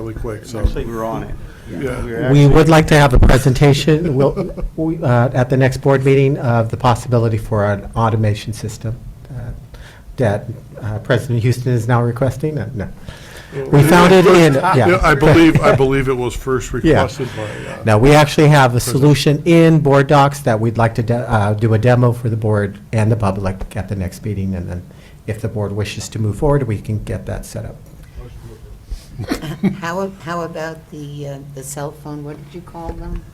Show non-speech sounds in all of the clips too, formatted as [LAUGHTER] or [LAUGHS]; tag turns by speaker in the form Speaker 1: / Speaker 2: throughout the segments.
Speaker 1: really quick, so.
Speaker 2: Actually, we were on it.
Speaker 1: Yeah.
Speaker 2: were
Speaker 3: We
Speaker 2: actually-
Speaker 3: would like to have a presentation, we'll, we, uh, at the next board meeting, of the possibility for an automation system uh, that uh, President Houston is now requesting, Uh, no. We found it
Speaker 1: [LAUGHS]
Speaker 3: in, yeah.
Speaker 1: I believe, I believe it was first
Speaker 3: Yeah.
Speaker 1: requested by. uh,
Speaker 3: Now, we actually have a solution in board docs that we'd like to de- uh, do a demo for the board and the public at the next meeting, and then if the board wishes to move forward, we can get that set up.
Speaker 4: How, a- how about the, uh, the cell phone, what did you call them?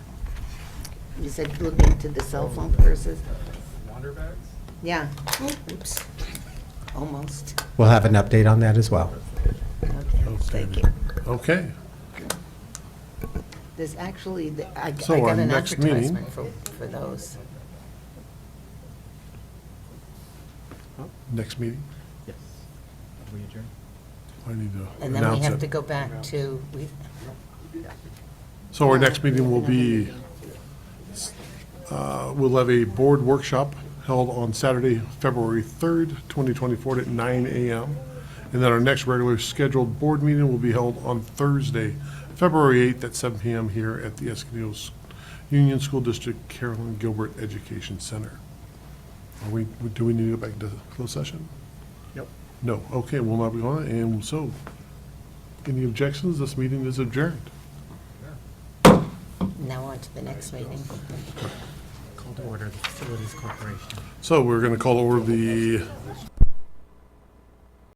Speaker 4: You said look into the cell phone purses? Wander bags? Yeah. Oops. Almost.
Speaker 3: We'll have an update on that as well.
Speaker 4: Okay, thank you.
Speaker 1: Okay,
Speaker 4: There's actually, the- I I
Speaker 1: So our
Speaker 4: got an
Speaker 1: next meeting-
Speaker 4: advertisement for, for those.
Speaker 1: next meeting, I need to
Speaker 4: And then we
Speaker 1: announce
Speaker 4: have to
Speaker 1: it.
Speaker 4: go back to, we,
Speaker 1: So our next meeting will be, uh, we'll have a board workshop held on Saturday, February 3rd, 2024 at 9 a.m. And then our next regular scheduled board meeting will be held on Thursday, February 8th at 7 p.m. here at the Escondido Union School District Carolyn Gilbert Education Center. Are we, do we need to go back to closed session?
Speaker 2: Yep.
Speaker 1: No, okay, we'll not be on it, and so, any objections? This meeting is adjourned.
Speaker 4: now on to the next meeting.
Speaker 3: Call to order the Facilities Corporation.
Speaker 1: So we're going to call over the